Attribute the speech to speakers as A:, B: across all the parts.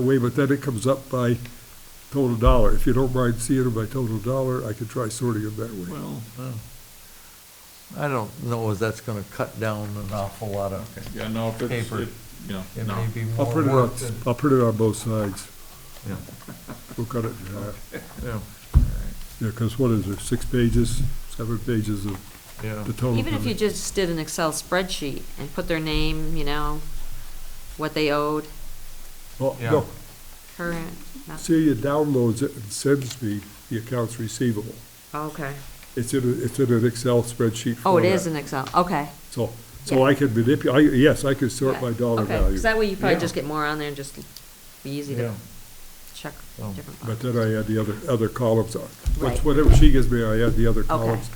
A: way, but then it comes up by total dollar. If you don't mind seeing it by total dollar, I could try sorting it that way.
B: Well, uh, I don't know if that's gonna cut down an awful lot of,
C: Yeah, no, if it's,
B: Paper.
C: it- yeah,
B: it
C: no.
B: may be
A: I'll
B: more
A: print it on,
B: work than.
A: I'll print it on both sides.
B: Oh, Yeah,
A: We'll cut it in half.
B: yeah,
A: Yeah, because what is there, six pages, seven pages of
B: yeah.
A: the total?
D: Even if you
A: coming-
D: just did an Excel spreadsheet and put their name, you know, what they owed,
A: Oh,
B: Yeah.
A: no,
D: current, not-
A: Celia downloads it and sends me the accounts receivable.
D: okay.
A: It's in, a- it's in an Excel spreadsheet format.
D: Oh, it is an Excel, okay.
A: So, so I could manipulate, I, yes, I could sort by dollar
D: Okay,
A: value.
D: 'cause that way you probably
B: Yeah.
D: just get more on there and just be easy
B: Yeah.
D: to check
B: Oh.
D: different.
A: But
D: boxes.
A: then I add the other, other columns on. Once-
D: Right.
A: Whatever she gives me, I add the other columns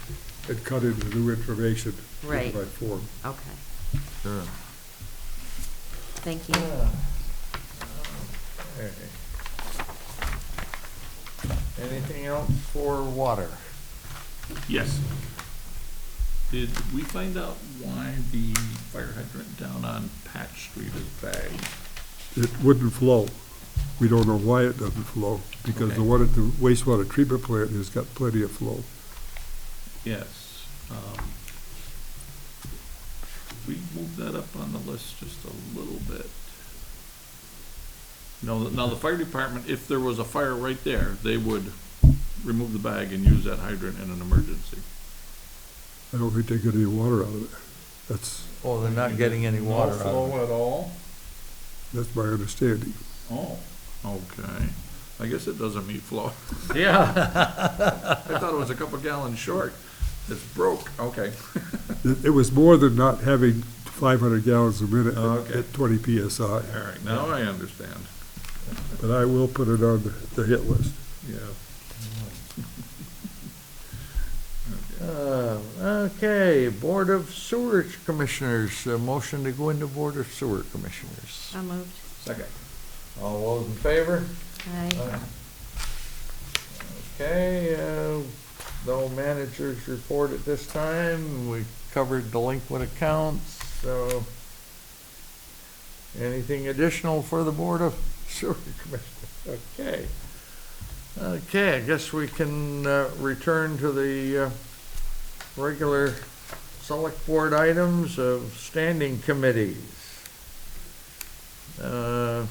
A: and cut in the new information
D: Right.
A: in my form.
D: Okay,
B: Sure.
D: thank you.
B: Yeah. Okay. Anything else for water?
C: Yes. Did we find out why the fire hydrant down on Patch Street is bagged?
A: It wouldn't flow. We don't know why it doesn't flow, because the
C: Okay.
A: one at the wastewater treatment plant has got plenty of flow.
C: Yes. um, We moved that up on the list just a little bit. Now, now the fire department, if there was a fire right there, they would remove the bag and use that hydrant in an emergency.
A: I don't think they get any water out of it. That's,
B: Oh, they're not getting any water out of it.
C: at all?
A: that's my understanding.
C: Oh, okay. I guess it doesn't meet flow.
B: Yeah.
C: I thought it was a couple gallons short. It's broke, okay.
A: It, it was more than not having five hundred gallons a minute at-
C: Okay.
A: at twenty PSI.
C: All right, now I understand.
A: But I will put it on the- the hit list.
C: Yeah.
B: Uh, Okay, Board of Sewer Commissioners, a motion to go into Board of Sewer Commissioners.
D: I moved.
C: Second.
B: All those in favor?
D: Aye.
B: Okay, uh, no managers report at this time. We covered delinquent accounts, so anything additional for the Board of Sewer Commissioners? Okay. Okay, I guess we can uh, return to the uh, regular select board items of standing committees. Uh,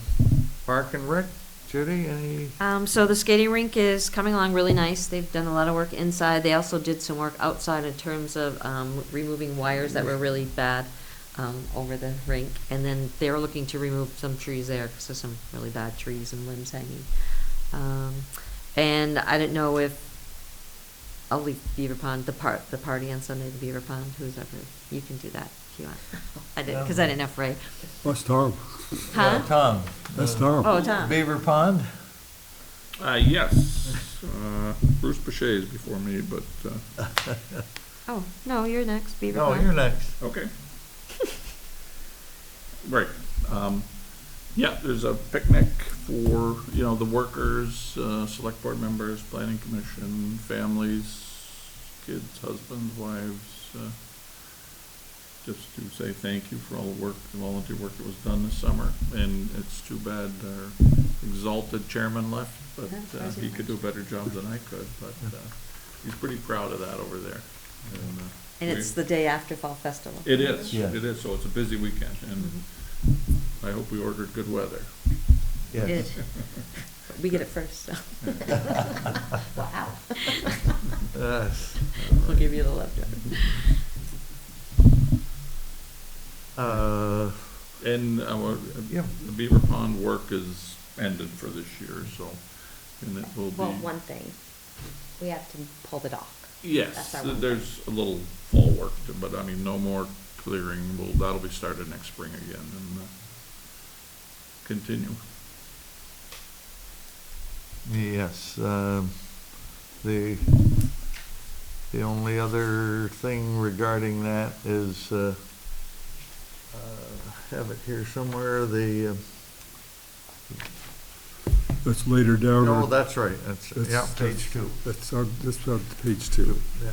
B: Park and Rec, Judy, any?
D: Um, so the skating rink is coming along really nice. They've done a lot of work inside. They also did some work outside in terms of, um, removing wires that were really bad, um, over the rink. And then they're looking to remove some trees there, cause there's some really bad trees and limbs hanging. Um, and I didn't know if, I'll leave Beaver Pond, the part, the party on Sunday, the Beaver Pond, who's ever, you can do that if you want. I did, cause I didn't know if Ray,
A: That's Tom.
D: huh?
B: Uh, Tom.
A: That's Tom.
D: Oh, Tom,
B: Beaver Pond?
C: Uh, yes, uh, Bruce Boucher is before me, but, uh,
D: oh, no, you're next, Beaver
B: No,
D: Pond.
B: you're next.
C: okay. Right, um, yeah, there's a picnic for, you know, the workers, uh, select board members, planning commission, families, kids, husbands, wives, uh, just to say thank you for all the work, the volunteer work that was done this summer, and it's too bad our exalted chairman left, but uh, he could do a better job than I could, but uh, he's pretty proud of that over there. And, uh,
D: And
C: we-
D: it's the day after Fall Festival.
C: It is,
B: Yeah.
C: it is, so it's a busy weekend, and
D: Mm-hmm.
C: I hope we ordered good weather.
D: It is. We get it first, so. Wow.
B: Yes.
D: We'll give you the leftover.
B: Uh,
C: And our
B: Yeah.
C: the Beaver Pond work is ended for this year, so, and it will be.
D: Well, one thing, we have to pull the dock.
C: Yes,
D: That's our one
C: there's a little fall work, to- but I mean, no more clearing, well, that'll be started next spring again and uh, continue.
B: Yes, um, the, the only other thing regarding that is, uh, uh, have it here somewhere, the, uh,
A: That's later down.
B: no,
A: on-
B: oh, that's right, that's,
A: that's-
B: yeah, page two.
A: That's on, that's on page two.
B: Yeah,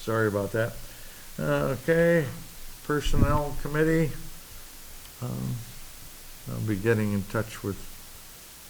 B: Sorry about that. Uh, Okay, Personnel Committee. Um, I'll be getting in touch with